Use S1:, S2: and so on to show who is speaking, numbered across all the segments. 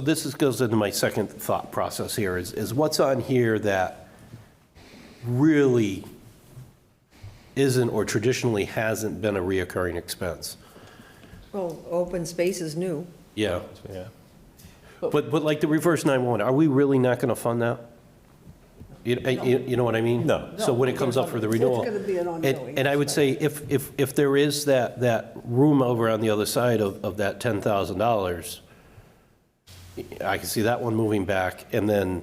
S1: This is, goes into my second thought process here, is, is what's on here that really isn't or traditionally hasn't been a reoccurring expense?
S2: Well, open space is new.
S1: Yeah, yeah. But, but like the reverse 911, are we really not going to fund that? You, you you know what I mean? No. So when it comes up for the renewal.
S2: gonna be an
S1: and-
S2: ongoing
S1: And I would say if, if, if there is that, that room over on the other side of, of that $10,000, I can see that one moving back. And then,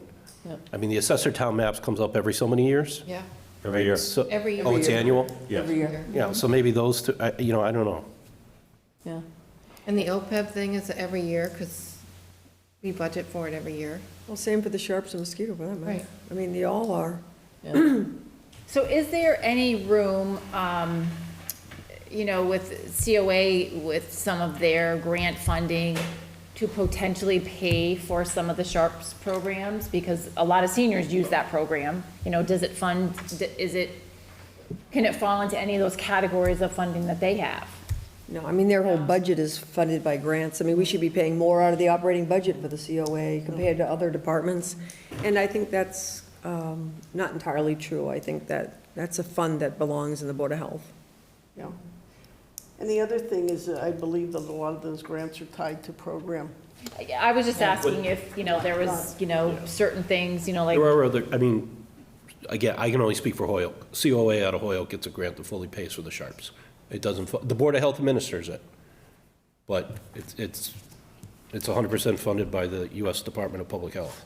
S1: I mean, the assessor town maps comes up every so many years?
S3: Yeah,
S4: Every year.
S1: So-
S3: Every
S1: Oh, it's
S3: year.
S1: annual?
S2: Mm-hmm.
S4: Yes.
S2: year.
S1: Yeah, so maybe those, two- I- you know, I don't know.
S3: yeah. And the OPEB thing is every year, because we budget for it every year.
S2: Well, same for the sharps and mosquito, for that matter.
S3: Right.
S2: I mean, they all are.
S5: So is there any room, um, you know, with COA, with some of their grant funding, to potentially pay for some of the Sharps programs? Because a lot of seniors use that program. You know, does it fund, is it, can it fall into any of those categories of funding that they have?
S2: No, I mean, their whole budget is funded by grants. I mean, we should be paying more out of the operating budget for the COA compared to other departments. And I think that's um, not entirely true. I think that, that's a fund that belongs in the Board of Health.
S6: Yeah. And the other thing is, that I believe that a lot of those grants are tied to program.
S5: I- I was just asking if, you know, there was, you know, certain things, you know, like.
S1: There are other, I mean, again, I can only speak for Hoyok. COA out of Hoyok gets a grant that fully pays for the Sharps. It doesn't, fu- the Board of Health administers it, but it's, it's, it's 100% funded by the U.S. Department of Public Health.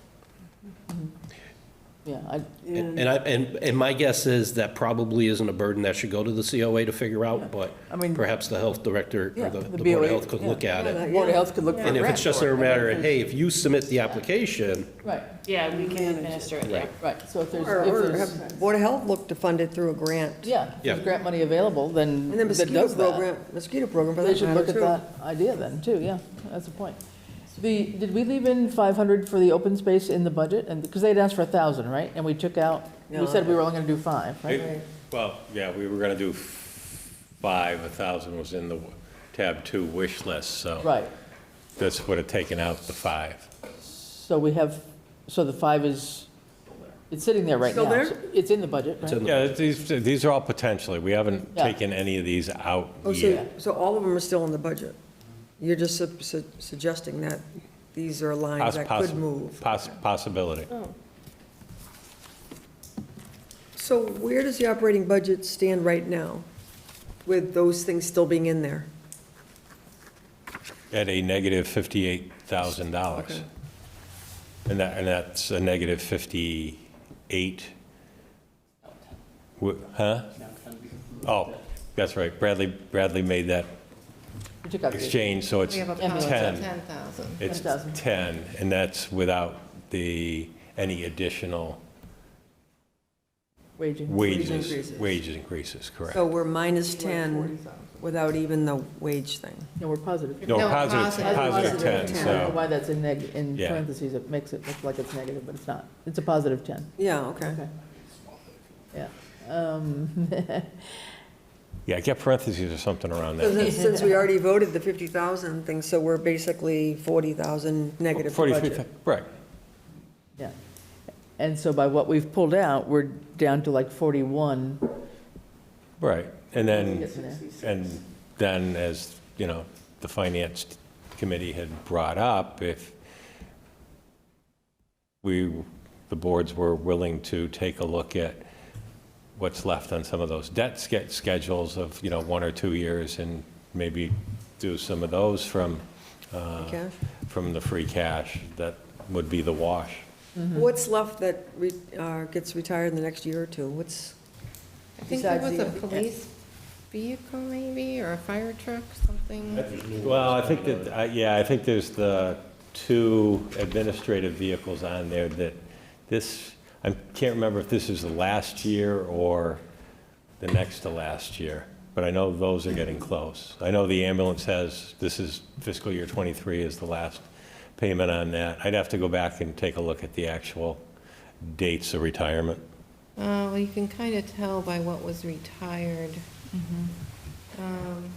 S7: Yeah, I,
S1: And and I, and, and my guess is that probably isn't a burden that should go to the COA to figure out, but
S7: I mean-
S1: perhaps the health director
S7: Yeah,
S1: or the
S7: the
S1: the Board
S7: BOA,
S1: of Health could
S7: yeah.
S1: look at
S2: Yeah,
S1: it.
S7: Board of Health could look for a
S1: And if
S7: grant
S1: it's just
S7: for it.
S1: a matter of, hey, if you submit the application,
S7: Right,
S5: Yeah, we can administer it, yeah.
S7: right, so if there's,
S2: Or
S7: if
S2: or
S7: there's,
S2: have Board of Health look to fund it through a grant.
S7: yeah, if
S1: Yeah.
S7: there's grant money available, then
S2: And then
S7: that
S2: mosquito
S7: does
S2: program,
S7: that.
S2: mosquito program for
S7: They
S2: that
S7: should look
S2: matter,
S7: at
S2: too.
S7: that idea then, too, yeah, that's a point. The, did we leave in five hundred for the open space in the budget? And, because they'd asked for a thousand, right? And we took out, we said we were only gonna do five, right?
S4: It- Well, yeah, we were gonna do five, a thousand was in the tab two wish list, so
S7: Right,
S4: this would have taken out the five.
S7: so we have, so the five is, it's sitting there right now.
S2: Still there?
S7: So It's in the budget, right?
S1: in the-
S4: Yeah, these, these are all potentially, we haven't
S7: Yeah.
S4: taken any of these out
S2: Oh,
S4: yet.
S2: so, so all of them are still in the budget? You're just su- su- suggesting that these are lines
S4: Poss-
S2: that
S4: possi-
S2: could move? Oh.
S4: poss- Possibility.
S2: So where does the operating budget stand right now with those things still being in there?
S4: At a negative $58,000. And that, and that's a negative 58. Wh- Huh? Oh, that's right, Bradley, Bradley made that
S7: We took out the-
S4: exchange, so it's
S3: We have a policy of
S4: 10.
S3: 10,000.
S4: It's
S7: 10,000.
S4: 10, and that's without the, any additional
S7: wage increase.
S4: wages,
S2: increases.
S4: wages increases, correct?
S2: So we're minus 10 without even the wage thing.
S7: No, we're positive.
S4: No,
S3: No,
S4: positive,
S3: positive.
S4: positive 10,
S7: I don't know
S4: so,
S7: why that's in neg, in
S4: Yeah.
S7: parentheses, it makes it look like it's negative, but it's not. It's a positive 10,
S2: Yeah, okay.
S7: yeah. Um,
S4: yeah, get parentheses or something around
S2: So
S4: that.
S2: then, since we already voted the 50,000 thing, so we're basically 40,000 negative for
S4: 43,
S2: budget.
S4: right,
S7: Yeah. And so by what we've pulled out, we're down to like 41.
S4: right. And then,
S7: Yes, ma'am.
S4: and then as, you know, the finance committee had brought up, if we, the boards were willing to take a look at what's left on some of those debt ske- schedules of, you know, one or two years and maybe do some of those from, uh,
S2: Cash.
S4: from the free cash, that would be the wash.
S2: What's left that re- uh, gets retired in the next year or two? What's,
S3: I think there was
S7: Besides
S3: a
S7: the-
S3: police vehicle maybe, or a fire truck, something.
S4: Well, I think that, I- yeah, I think there's the two administrative vehicles on there that this, I can't remember if this is the last year or the next to last year, but I know those are getting close. I know the ambulance has, this is fiscal year 23 is the last payment on that. I'd have to go back and take a look at the actual dates of retirement.
S3: Uh, well, you can kind of tell by what was retired. Um,